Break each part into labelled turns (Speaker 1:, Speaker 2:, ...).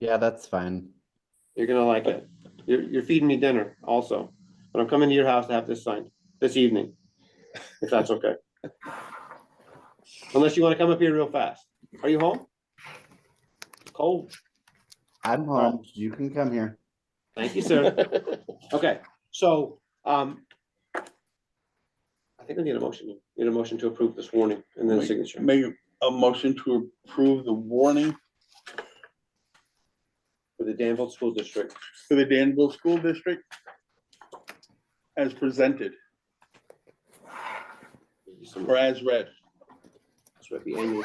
Speaker 1: Yeah, that's fine.
Speaker 2: You're gonna like it. You're, you're feeding me dinner also, but I'm coming to your house to have this signed this evening, if that's okay. Unless you wanna come up here real fast. Are you home? Cold.
Speaker 1: I'm home. You can come here.
Speaker 2: Thank you, sir. Okay, so, um, I think I need a motion, need a motion to approve this warning and then signature.
Speaker 3: Make a motion to approve the warning
Speaker 2: For the Danville School District,
Speaker 3: for the Danville School District as presented, or as read.
Speaker 2: So at the annual.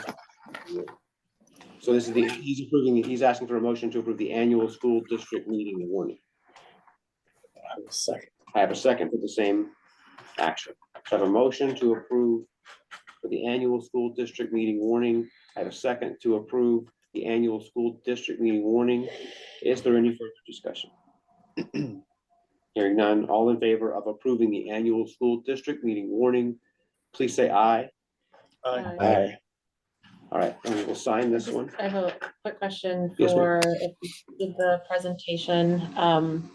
Speaker 2: So this is the, he's approving, he's asking for a motion to approve the annual school district meeting warning. I have a second for the same action. So I have a motion to approve for the annual school district meeting warning. I have a second to approve the annual school district meeting warning. Is there any further discussion? Hearing none, all in favor of approving the annual school district meeting warning, please say aye.
Speaker 4: Uh,
Speaker 3: Aye.
Speaker 2: All right, and we will sign this one.
Speaker 4: I have a quick question
Speaker 2: Yes,
Speaker 4: for if you did the presentation, um,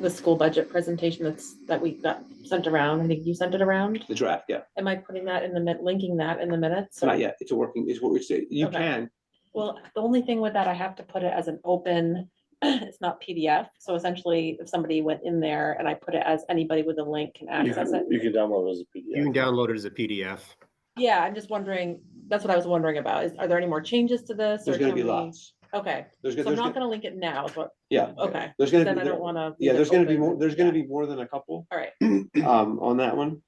Speaker 4: the school budget presentation that's, that we got sent around. I think you sent it around.
Speaker 2: The draft, yeah,
Speaker 4: Am I putting that in the, min- linking that in the minutes? or-
Speaker 2: not yet, it's a working, it's what we say, you
Speaker 4: Okay.
Speaker 2: can,
Speaker 4: Well, the only thing with that, I have to put it as an open, it's not PDF. So essentially, if somebody went in there and I put it as anybody with a link can access it.
Speaker 5: You can download it as a
Speaker 6: You
Speaker 5: PDF.
Speaker 6: can download it as a PDF.
Speaker 4: Yeah, I'm just wondering, that's what I was wondering about. Is, are there any more changes to this? or
Speaker 2: there's gonna
Speaker 4: can
Speaker 2: be
Speaker 4: we-
Speaker 2: lots.
Speaker 4: Okay,
Speaker 2: There's,
Speaker 4: so
Speaker 2: gonna-
Speaker 4: I'm
Speaker 2: there's, gonna-
Speaker 4: not gonna link it now, but,
Speaker 2: yeah,
Speaker 4: okay.
Speaker 2: there's
Speaker 4: Then I
Speaker 2: gonna,
Speaker 4: don't
Speaker 2: be-
Speaker 4: wanna. leave
Speaker 2: yeah,
Speaker 4: it
Speaker 2: there's gonna be
Speaker 4: open.
Speaker 2: more, there's gonna
Speaker 4: Yeah.
Speaker 2: be more than a couple,
Speaker 4: All right,
Speaker 2: um, on that one.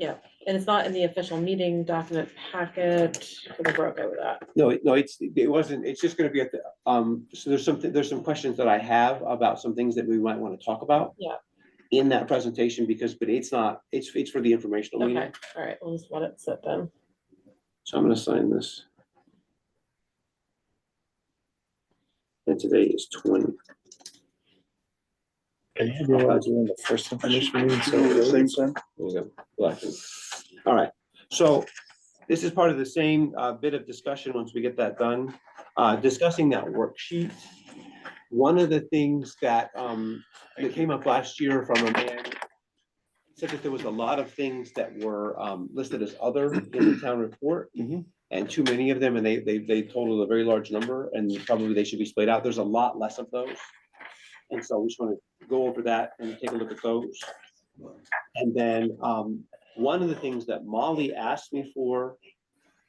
Speaker 4: and it's not in the official meeting document packet, so we're okay with that.
Speaker 2: No, it- no, it's, it wasn't, it's just gonna be at the, um, so there's something, there's some questions that I have about some things that we might wanna talk about.
Speaker 4: Yeah.
Speaker 2: In that presentation, because, but it's not, it's, it's for the informational
Speaker 4: Okay,
Speaker 2: meeting,
Speaker 4: all right, we'll just let it sit then.
Speaker 2: so I'm gonna sign this. And today is twenty.
Speaker 5: And you realize you're in the first information meeting, so
Speaker 3: At the
Speaker 5: it
Speaker 3: Same
Speaker 5: is.
Speaker 3: time.
Speaker 2: All right, so this is part of the same uh, bit of discussion, once we get that done, uh, discussing that worksheet. One of the things that um, that came up last year from a man said that there was a lot of things that were um, listed as other in the town report.
Speaker 1: Mhm.
Speaker 2: And too many of them, and they they they totaled a very large number, and probably they should be split out. There's a lot less of those. And so we just want to go over that and take a look at those. And then um, one of the things that Molly asked me for,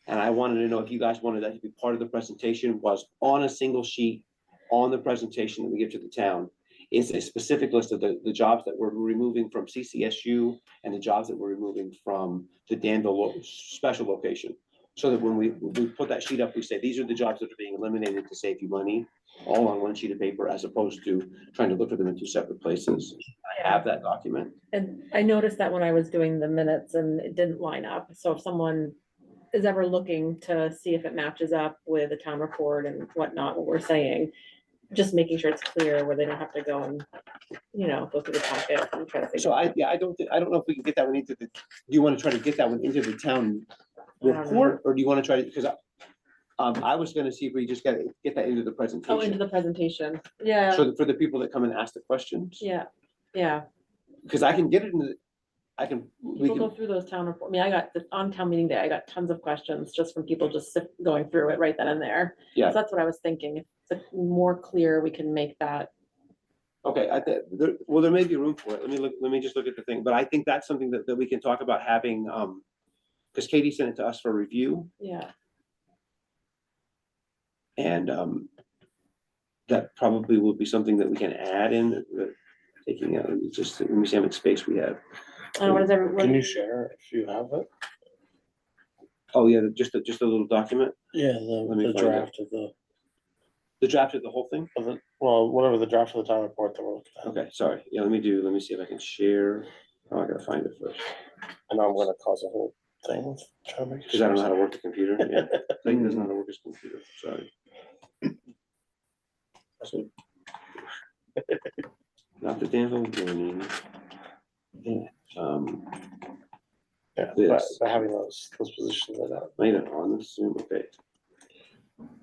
Speaker 2: and I wanted to know if you guys wanted that to be part of the presentation, was on a single sheet, on the presentation that we give to the town, is a specific list of the, the jobs that we're removing from CCSU and the jobs that we're removing from the Danville lo- special location. So that when we, we put that sheet up, we say, these are the jobs that are being eliminated to save you money, all on one sheet of paper, as opposed to trying to look for them in two separate places. I have that document.
Speaker 4: And I noticed that when I was doing the minutes and it didn't line up, so if someone is ever looking to see if it matches up with the town report and whatnot, what we're saying, just making sure it's clear where they don't have to go and, you know, go through the packet and try to figure.
Speaker 2: So I, yeah, I don't, thi- I don't know if we can get that one into the, do you want to try to get that one into the town
Speaker 4: don't know.
Speaker 2: report, or do you want to try to, because I, um, I was gonna see if we just got, get that into the
Speaker 4: Oh, into
Speaker 2: presentation.
Speaker 4: the presentation, yeah,
Speaker 2: So that for the people that come and ask the questions,
Speaker 4: yeah, yeah.
Speaker 2: because I can get it in the, I can, we
Speaker 4: People go
Speaker 2: can,
Speaker 4: through those town report, I mean, I got, the- on town meeting day, I got tons of questions just from people just sip- going through it right then and there. So
Speaker 2: Yeah.
Speaker 4: That's what I was thinking, if the more clear we can make that,
Speaker 2: okay, I, thi- there, well, there may be room for it, let me look, let me just look at the thing, but I think that's something that, that we can talk about having, um, because Katie sent it to us for review,
Speaker 4: yeah,
Speaker 2: And um, that probably will be something that we can add in, uh, taking out, let me just, let me see how much space we have.
Speaker 4: and what is
Speaker 5: uh, Can you
Speaker 4: everyone,
Speaker 5: share if you have it?
Speaker 2: Oh, yeah, just a, just a little document,
Speaker 5: Yeah,
Speaker 2: Let me
Speaker 5: the, the
Speaker 2: find it.
Speaker 5: draft of the,
Speaker 2: the draft of the whole thing?
Speaker 5: of the, well, whatever the draft of the town report that we're looking at.
Speaker 2: Okay, sorry, yeah, let me do, let me see if I can share, oh, I gotta find it first,
Speaker 5: And I'm gonna cause a whole thing. with trying to make
Speaker 2: because I don't know how
Speaker 5: sure.
Speaker 2: to work the computer, yeah. Clayton doesn't know how to work his computer, sorry. So- Not the Danville warning. Um,
Speaker 5: Yeah,
Speaker 2: this.
Speaker 5: but- but having those, those positions like that.
Speaker 2: Wait, on the Zoom, okay.